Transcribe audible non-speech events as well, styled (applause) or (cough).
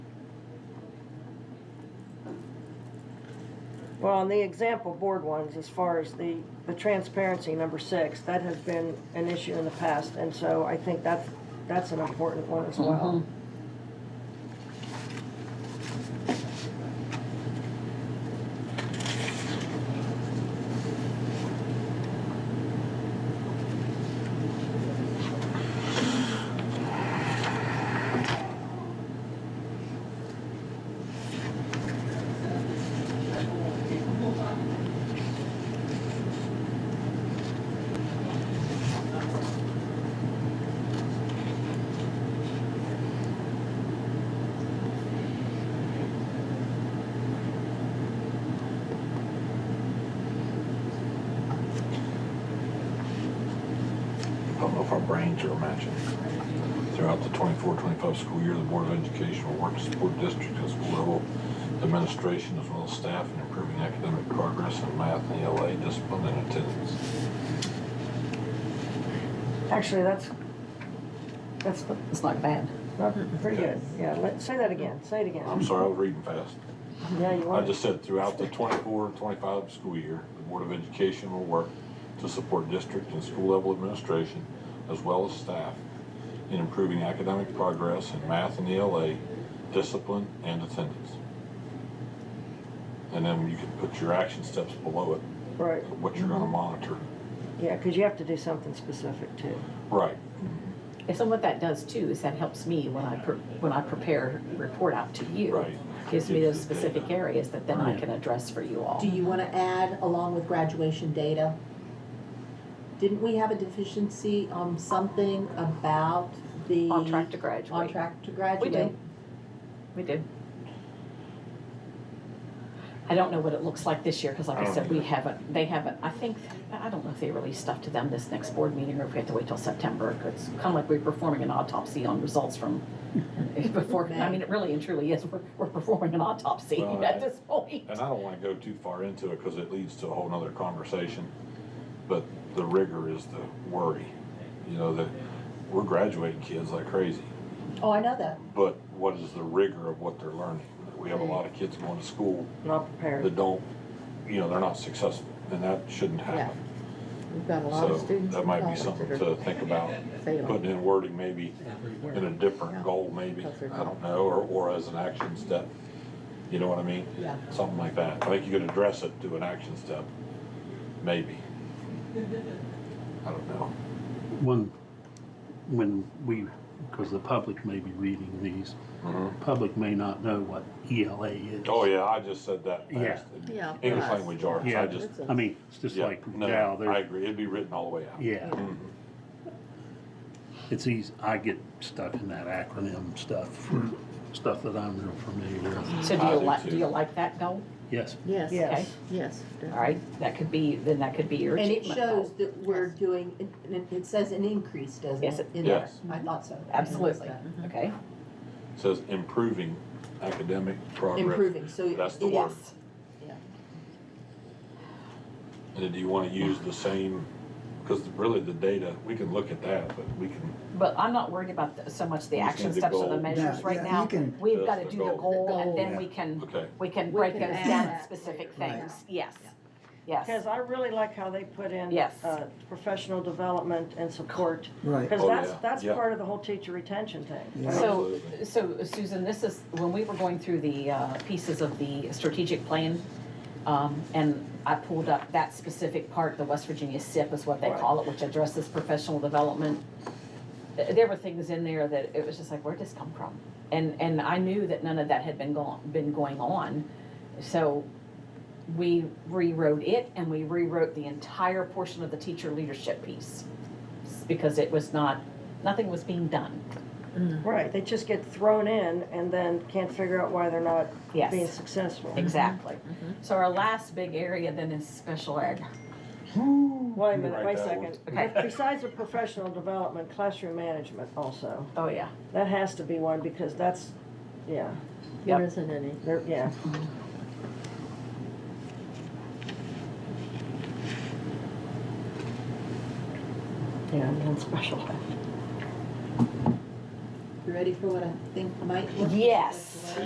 Well, on the example board ones, as far as the, the transparency, number six, that has been an issue in the past, and so I think that's, that's an important one as well. I don't know if our brains are matching. Throughout the 24-25 school year, the Board of Education will work to support district and school level administration as well as staff in improving academic progress in math and ELA discipline and attendance. Actually, that's, that's the- It's not bad. not pretty good, yeah, let, say that again, say it again. I'm sorry, I was reading fast. Yeah, you I want, just said throughout the 24-25 school year, the Board of Education will work to support district and school level administration as well as staff in improving academic progress in math and ELA, discipline, and attendance. And then you can put your action steps below it, right, what you're gonna monitor. yeah, because you have to do something specific too. Right, And so what that does too is that helps me when I, pre- when I prepare a report out to you. Right. Gives me those specific areas that then I can address for you all. Do you want to add along with graduation data? Didn't we have a deficiency on something about the? On track to graduate. On track to graduate? did. We did. I don't know what it looks like this year, because like I I don't said, we either. haven't, they haven't, I think, I don't know if they release stuff to them this next board meeting, or if we have to wait till September. It's kind of like we're performing an autopsy on results (laughs) from before, I mean, it really and truly is, we're, we're performing an autopsy Well, I- at this point. and I don't wanna go too far into it because it leads to a whole nother conversation, but the rigor is the worry. You know, that we're graduating kids like crazy. Oh, I know that. but what is the rigor of what they're learning? We have a lot of kids going to school Not prepared. that don't, you know, they're not successful, and that shouldn't happen. We've got a lot So of students. that in might be college something that to are think about, failing putting in wording maybe everywhere. in a different goal, maybe, I don't know, or, or as an action step. You know what I mean? Yeah. Something like that. I think you could address it to an action step, maybe. I don't know. One, when we, because the public may be reading these, public may not know what ELA is. Uh-huh. Oh, yeah, I just said that Yeah. fast. Yeah, English right. language arts, Yeah, I just, I mean, it's just yeah, like no, now, I there, agree, it'd be written all the way out. yeah, Mhm. it's easy, I get stuck in that acronym stuff Hmm. for stuff that I'm real familiar with. So do I you do like, do too. you like that goal? Yes, Yes. Yes. Yes. All right, that could be, then that could be your And it achievement goal. shows that we're doing, it- it, it says an increase, doesn't it? Yes, it- in there? Yes. I thought so. I noticed Absolutely, that. okay? says improving academic progress. Improving, so it That's is. the word. Yeah. And do you want to use the same, because really the data, we can look at that, but we can, But I'm not worried about the- so much the You just action need the steps or the goal. measures Yeah, right yeah, now. you can- We've got to That's do the the goal. goal and The then goal. we can, okay, we can We break can those add down to that specific later. things. Yes, yes. Because I really like how they put in. Yes. uh, Professional development and support, Right. because Oh, that's, yeah, that's yeah. part of the whole teacher retention thing. Yeah. So, Absolutely. so Susan, this is, when we were going through the uh, pieces of the strategic plan, um, and I pulled up that specific part, the West Virginia SIP is what they call it, which addresses professional development. Th- There were things in there that it was just like, where'd this come from? And, and I knew that none of that had been gone, been going on. So we rewrote it and we rewrote the entire portion of the teacher leadership piece. Because it was not, nothing was being done. Right, they just get thrown in and then can't figure out why they're not Yes. being successful. Mm-hmm. Exactly. So our last big area then is special ed. Wait a minute, Write wait a that second. one. Okay. Besides the professional development, classroom management also, Oh, yeah. that has to be one because that's, yeah, There isn't any. there, yeah. Yeah, and then special ed. You ready for what I think might? Yes.